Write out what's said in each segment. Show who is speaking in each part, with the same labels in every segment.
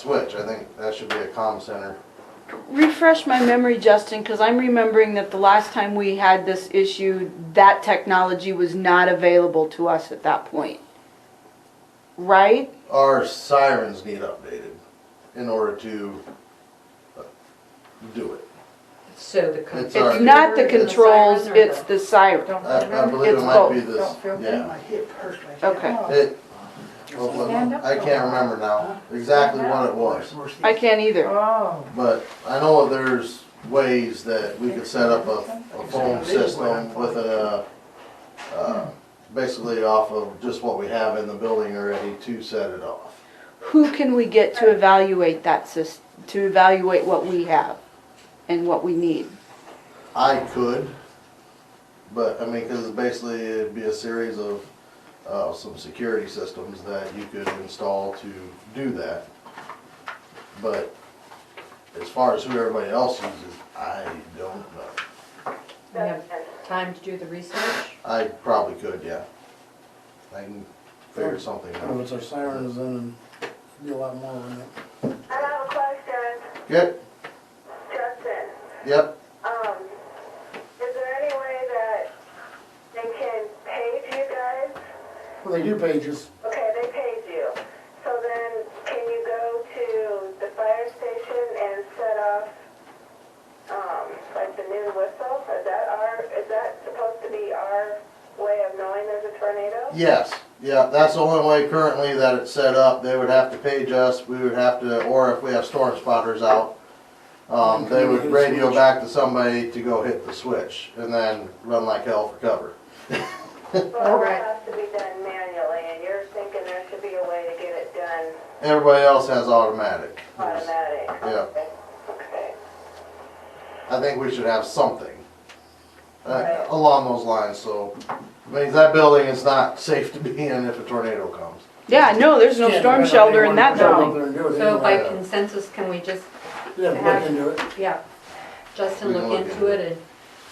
Speaker 1: switch. I think that should be a comm center.
Speaker 2: Refresh my memory, Justin, because I'm remembering that the last time we had this issue, that technology was not available to us at that point. Right?
Speaker 1: Our sirens need updated in order to uh, do it.
Speaker 3: So the. con-
Speaker 1: It's our-
Speaker 2: It's not the controls,
Speaker 3: siren or
Speaker 2: it's the siren.
Speaker 4: Don't feel
Speaker 1: I, I
Speaker 4: them,
Speaker 1: believe it
Speaker 2: It's
Speaker 1: might be this,
Speaker 4: don't feel them,
Speaker 1: yeah.
Speaker 4: I hit personally.
Speaker 2: Okay.
Speaker 1: It, hopefully-
Speaker 4: Stand up
Speaker 1: I
Speaker 4: for
Speaker 1: can't
Speaker 4: a while.
Speaker 1: remember now exactly what it was.
Speaker 2: I can't either.
Speaker 4: Oh.
Speaker 1: But I know there's ways that we could set up a, a phone system with a, uh, basically off of just what we have in the building already to set it off.
Speaker 2: Who can we get to evaluate that sys, to evaluate what we have and what we need?
Speaker 1: I could, but I mean, cause basically it'd be a series of, uh, some security systems that you could install to do that. But as far as who everybody else uses, I don't know.
Speaker 3: We have time to do the research?
Speaker 1: I probably could, yeah. I can figure something
Speaker 5: Well,
Speaker 1: out.
Speaker 5: it's our sirens in and it'd be a lot more than that.
Speaker 6: I have a question,
Speaker 1: Yep,
Speaker 6: Justin.
Speaker 1: yep.
Speaker 6: Um, is there any way that they can page you guys?
Speaker 5: Well, they do pages.
Speaker 6: Okay, they paid you. So then, can you go to the fire station and set off, um, like the new whistle? Is that our, is that supposed to be our way of knowing there's a tornado?
Speaker 1: Yes, yeah, that's the only way currently that it's set up. They would have to page us, we would have to, or if we have storm spotters out, um, they would radio back to somebody to go hit the switch and then run like hell for cover.
Speaker 6: Well,
Speaker 3: Alright.
Speaker 6: it has to be done manually, and you're thinking there should be a way to get it done
Speaker 1: Everybody else has automatic.
Speaker 6: automatic.
Speaker 1: Yeah.
Speaker 6: Okay. Okay.
Speaker 1: I think we should have something uh,
Speaker 6: Right.
Speaker 1: along those lines, so, I mean, that building is not safe to be in if a tornado comes.
Speaker 2: Yeah, no, there's no
Speaker 5: Can't
Speaker 2: storm
Speaker 5: depend on
Speaker 2: shelter in
Speaker 5: anyone
Speaker 2: that
Speaker 5: to go
Speaker 2: building.
Speaker 5: out there and do it
Speaker 3: So by
Speaker 5: anyway.
Speaker 3: consensus, can we just,
Speaker 5: They have to look into it.
Speaker 3: yeah, Justin
Speaker 1: We can
Speaker 3: look
Speaker 1: look
Speaker 3: into
Speaker 1: into
Speaker 3: it and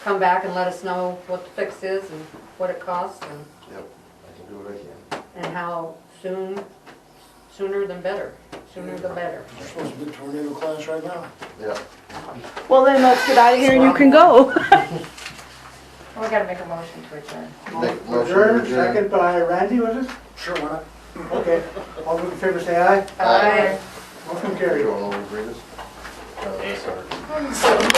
Speaker 3: come back and let us know what the fix is and what it costs and,
Speaker 1: Yep, I can do what I can.
Speaker 3: and how soon, sooner than better, sooner the better.
Speaker 5: We're supposed to be tornado class right now.
Speaker 1: Yeah,
Speaker 2: Well, then let's get out of here and you can go.
Speaker 4: We gotta make a motion to adjourn.
Speaker 1: Make a motion to
Speaker 7: Adjourn,
Speaker 1: adjourn.
Speaker 7: second by Randy, was it?
Speaker 5: Sure, why not?
Speaker 7: Okay, all those in favor say aye.
Speaker 1: Aye.
Speaker 7: Motion
Speaker 1: Are you
Speaker 7: carried.
Speaker 1: going over to Rita's? Uh, that's our-